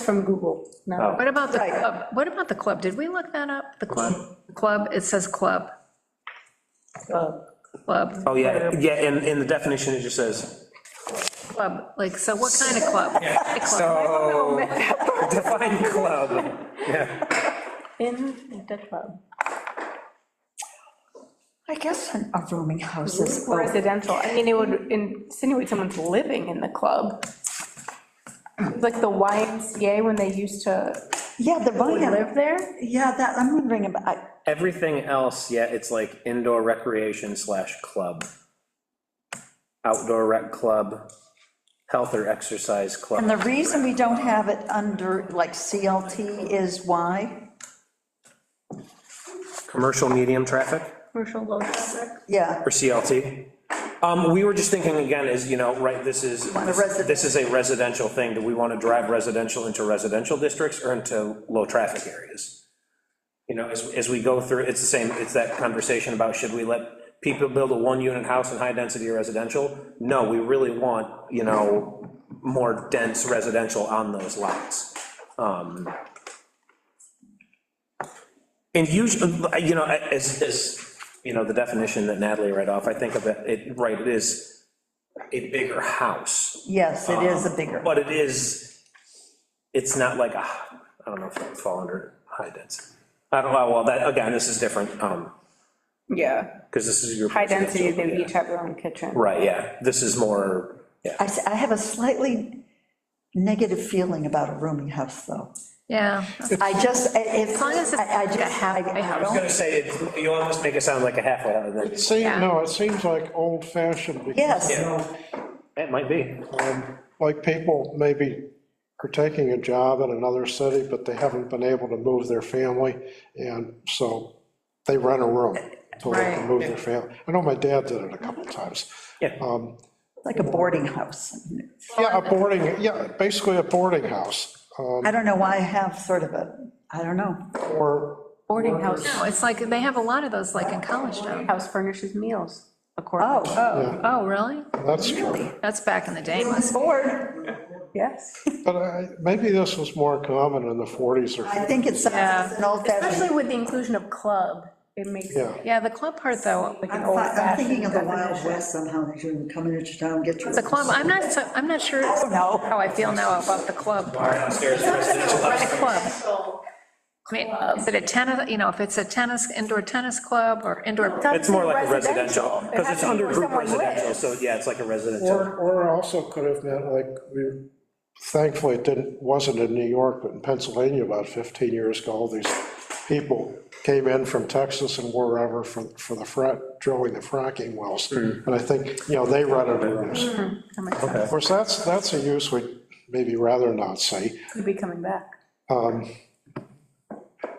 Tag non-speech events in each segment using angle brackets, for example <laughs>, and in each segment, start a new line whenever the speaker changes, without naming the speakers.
from Google. No,
What about the,
Right.
club? what about the club? Did we look that up? The club? The Club, it says club. Club,
Oh, yeah, yeah, in, in the definition, it just says,
club, like, so what kind of club? A club.
Oh.
so, <laughs> define club.
in the club. I guess in a rooming house is.
residential, I mean, it would insinuate someone's living in the club. Like the YMCA when they used to
Oh, Yeah, the
live
volume,
there?
yeah, that, I'm wondering about, I-
Everything else, yeah, it's like indoor recreation slash club. Outdoor rec club, health or exercise
and the
club.
reason we don't have it under, like, CLT is why?
Commercial medium traffic?
Commercial low traffic.
Yeah,
or CLT. Um, we were just thinking again, is, you know, right, this is,
a residential.
this is a residential thing, do we want to drive residential into residential districts or into low-traffic areas? You know, as, as we go through, it's the same, it's that conversation about should we let people build a one-unit house in high-density residential? No, we really want, you know, more dense residential on those lots. Um, and usually, you know, as, as, you know, the definition that Natalie read off, I think of it, it, right, it is a bigger house,
yes, it is a bigger,
but it is, it's not like a, I don't know if that would fall under high density. I don't know, well, that, again, this is different, um,
Yeah,
because this is your.
high density, they would
Yeah.
each have their own kitchen.
Right, yeah, this is more, yeah.
I, s- I have a slightly negative feeling about a rooming house, though.
Yeah,
I just, I- if.
As long as it's
I- I
like a
just-
halfway
I- I
house.
I was
don't-
gonna say, it- you almost make it sound like a halfway, house, and
It
it's-
seems,
Yeah.
no, it seems like old fashioned. because,
Yes.
you know,
it might be.
um, Like people maybe are taking a job in another city, but they haven't been able to move their family, and so they rent a room until they
Right.
can move their family. I know my dad did it a couple times.
Yeah.
Um,
Like a boarding house.
Yeah, a boarding, yeah, basically a boarding house, um,
I don't know why I have sort of a, I don't know.
or,
Boarding house,
no, it's like, they have a lot of those, like, in College Town.
house furnishes meals, according.
Oh,
Oh, oh, really?
that's true.
That's back in the day.
board.
Yes.
But I- maybe this was more common in the 40s or
I think it's
Yeah.
an old fashioned.
Especially with the inclusion of club, it makes
Yeah.
it
Yeah, the club part, though,
like an
I'm
old
fi- I'm
fashioned
thinking of the Wild
definition.
West somehow, that you can come into town, get your.
the club, I'm not, so- I'm not sure
know.
how I feel now about the club part.
Downstairs residential.
The club. I mean, is it a tennis, you know, if it's a tennis, indoor tennis club or indoor,
It's more like a
Residential.
residential,
It
because
has
it's
to be
under
where
group
someone lives.
residential, so yeah, it's like a residential.
Or, or also could have meant, like, we thankfully it didn't, wasn't in New York, but in Pennsylvania about 15 years ago, all these people came in from Texas and wherever for, for the frac, drilling the fracking wells. And I think, you know, they rented rooms.
Mm-hmm. That makes sense.
Of course, that's, that's a use we maybe rather not see,
Could be coming back.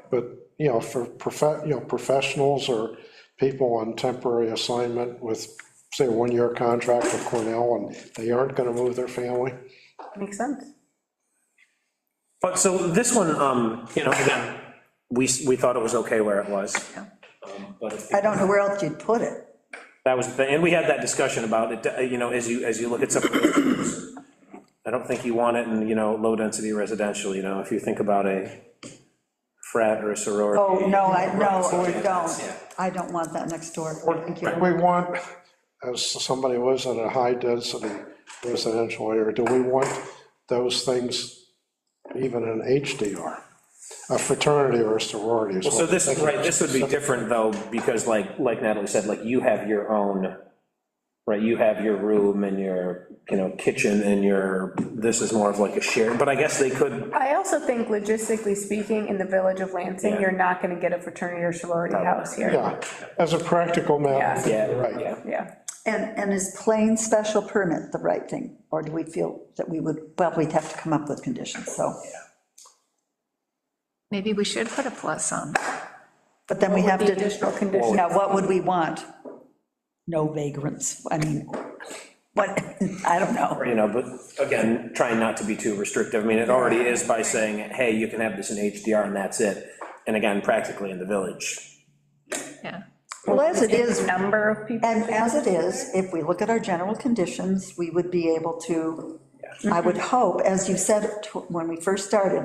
but, you know, for prof, you know, professionals or people on temporary assignment with, say, a one-year contract with Cornell, and they aren't gonna move their family.
Makes sense.
But so this one, um, you know, again, we, s- we thought it was okay where it was. Um, But if-
I don't know where else you'd put it.
that was, the thing, and we had that discussion about it, uh, you know, as you, as you look at some. of those, I don't think you want it in, you know, low-density residential, you know, if you think about a frat or a sorority.
Oh, no, I, no, I don't. I don't want that next door. Thank you.
We want, as somebody was in a high-density residential area, do we want those things even in HDR? A fraternity or a sorority is
So
what
this, right, this would be different though, because like, like Natalie said, like you have your own, right, you have your room and your, you know, kitchen and your, this is more of like a shared, but I guess they could,
I also think logistically speaking, in the village of Lansing, you're not gonna get a fraternity or sorority house here.
Yeah, as a practical matter.
yeah,
Right.
yeah.
Yeah.
And, and is plain special permit the right thing? Or do we feel that we would, well, we'd have to come up with conditions, so.
maybe we should put a plus on.
But then we have
The
to,
additional condition.
now, what would we want? No vagrants, I mean, what, <laughs> I don't know.
You know, but again, trying not to be too restrictive, I mean, it already is by saying, hey, you can have this in HDR and that's it. And again, practically in the village,
Yeah,
Well, as it is,
Number of people.
And as it is, if we look at our general conditions, we would be able to I would hope, as you said to- when we first started,